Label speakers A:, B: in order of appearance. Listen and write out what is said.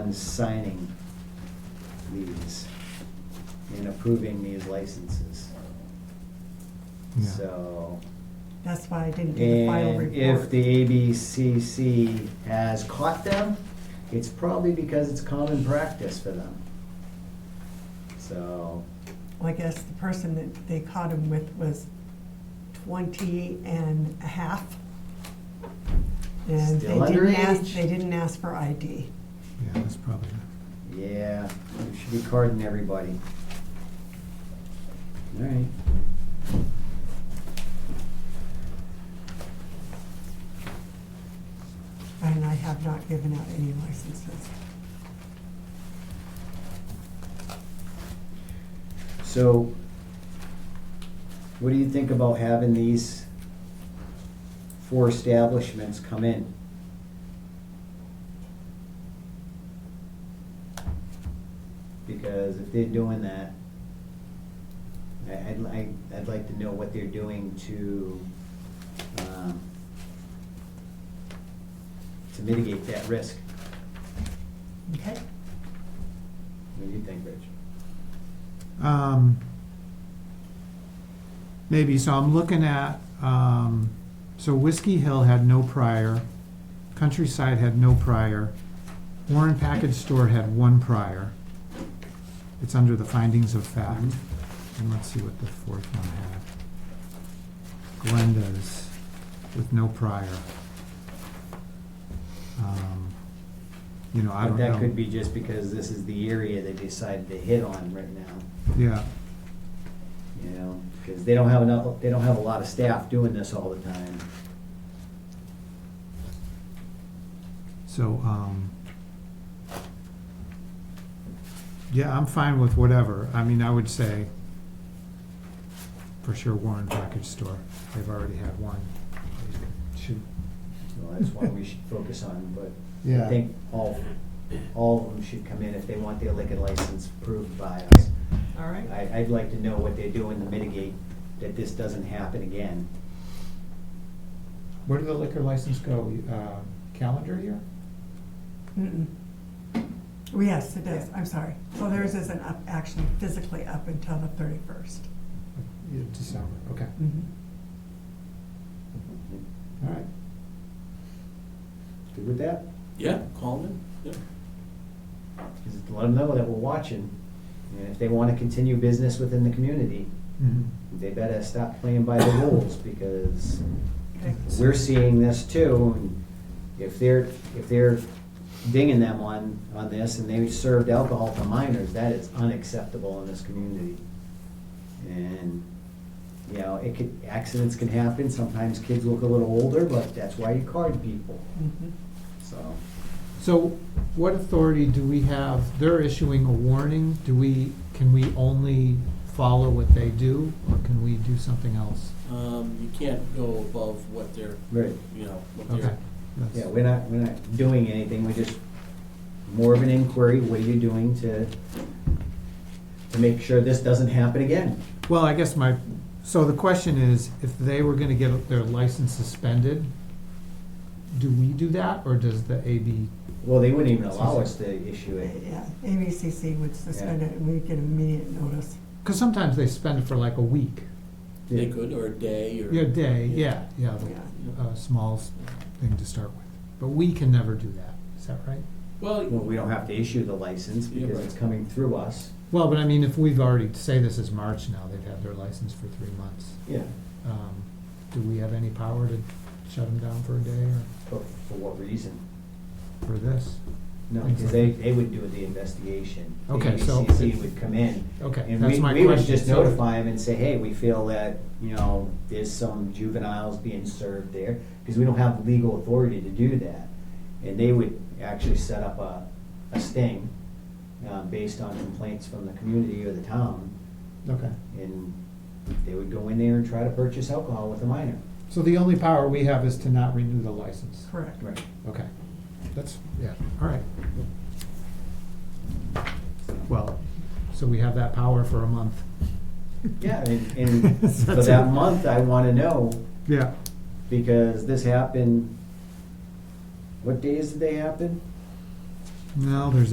A: is signing these and approving these licenses.
B: Yeah.
A: So,
C: That's why I didn't do the final
A: and if
C: report.
A: the ABCC has caught them, it's probably because it's common practice for them. So,
C: Well, I guess the person that they caught him with was twenty and a half. And they
A: Still
C: didn't ask,
A: underage.
C: they didn't ask for ID.
B: Yeah, that's probably, it.
A: yeah, we should be carding everybody. All right.
C: And I have not given out any licenses.
A: So, what do you think about having these four establishments come in? Because if they're doing that, I- I'd like, I'd like to know what they're doing to, um, to mitigate that risk.
C: Okay?
A: What do you think, Rich?
B: um, maybe, so I'm looking at, um, so Whiskey Hill had no prior, Countryside had no prior, Warren Package Store had one prior. It's under the findings of fact,
A: Mhm.
B: and let's see what the fourth one had. Glenda's with no prior. Um, You know, I
A: But
B: don't know.
A: that could be just because this is the area they decided to hit on right now.
B: Yeah.
A: you know, because they don't have enough, they don't have a lot of staff doing this all the time.
B: So, um, yeah, I'm fine with whatever. I mean, I would say for sure Warren Package Store. They've already had one. They Should,
A: So that's one we should focus on, but I
B: yeah.
A: think all, all of them should come in if they want their liquor license approved by us.
C: All right.
A: I, I'd like to know what they're doing to mitigate that this doesn't happen again.
B: Where did the liquor license go? Um, Calendar year?
C: Mm-mm. Well, Yes, it is, I'm sorry. So theirs isn't up, actually physically up until the thirty-first.
B: Yeah, December, okay.
A: Mm-hmm.
B: All right.
A: Good with that?
D: Yeah, call them in, yeah.
A: Just let them know that we're watching, and if they want to continue business within the community,
B: Mhm.
A: they better stop playing by the rules, because
C: Okay,
A: we're seeing this too, and if they're, if they're dinging them on, on this, and they served alcohol to minors, that is unacceptable in this community. And, you know, it could, accidents can happen, sometimes kids look a little older, but that's why you card people,
C: Mhm.
A: so.
B: So what authority do we have? They're issuing a warning. Do we, can we only follow what they do or can we do something else?
D: Um, you can't go above what they're,
A: Right.
D: you know, what
B: Okay.
D: they're,
B: That's-
A: Yeah, we're not, we're not doing anything, we're just more of an inquiry, what are you doing to, to make sure this doesn't happen again?
B: Well, I guess my, so the question is, if they were gonna get their license suspended, do we do that, or does the AB?
A: Well, they wouldn't even allow us to issue it.
C: Mm-hmm. Yeah, ABCC would suspend
A: Yeah.
C: it and we'd get immediate notice.
B: Because sometimes they spend it for like a week,
D: they could, or a day, or.
B: a day, yeah, yeah, the-
C: Yeah.
B: a small s- thing to start with. But we can never do that, is that right?
A: Well,
D: Well,
A: we don't have to issue the license
D: Yeah,
A: because
D: right.
A: it's coming through us.
B: Well, but I mean, if we've already, say this is March now, they've had their license for three months,
A: Yeah.
B: um, do we have any power to shut them down for a day or
A: But for what reason?
B: for this?
A: No, because they, they would do the investigation. The
B: Okay, so-
A: ABCC would come in.
B: Okay,
A: And
B: that's
A: we,
B: my question.
A: we would just
B: So-
A: notify them and say, hey, we feel that, you know, there's some juveniles being served there, because we don't have legal authority to do that. And they would actually set up a, a sting, uh, based on complaints from the community or the town.
B: Okay.
A: And they would go in there and try to purchase alcohol with a minor.
B: So the only power we have is to not renew the license?
C: Correct.
A: Right.
B: Okay, that's, yeah, all right. Well, so we have that power for a month.
A: Yeah, and, and for that month, I wanna know,
B: Yeah,
A: because this happened, what days did they happen?
B: no, there's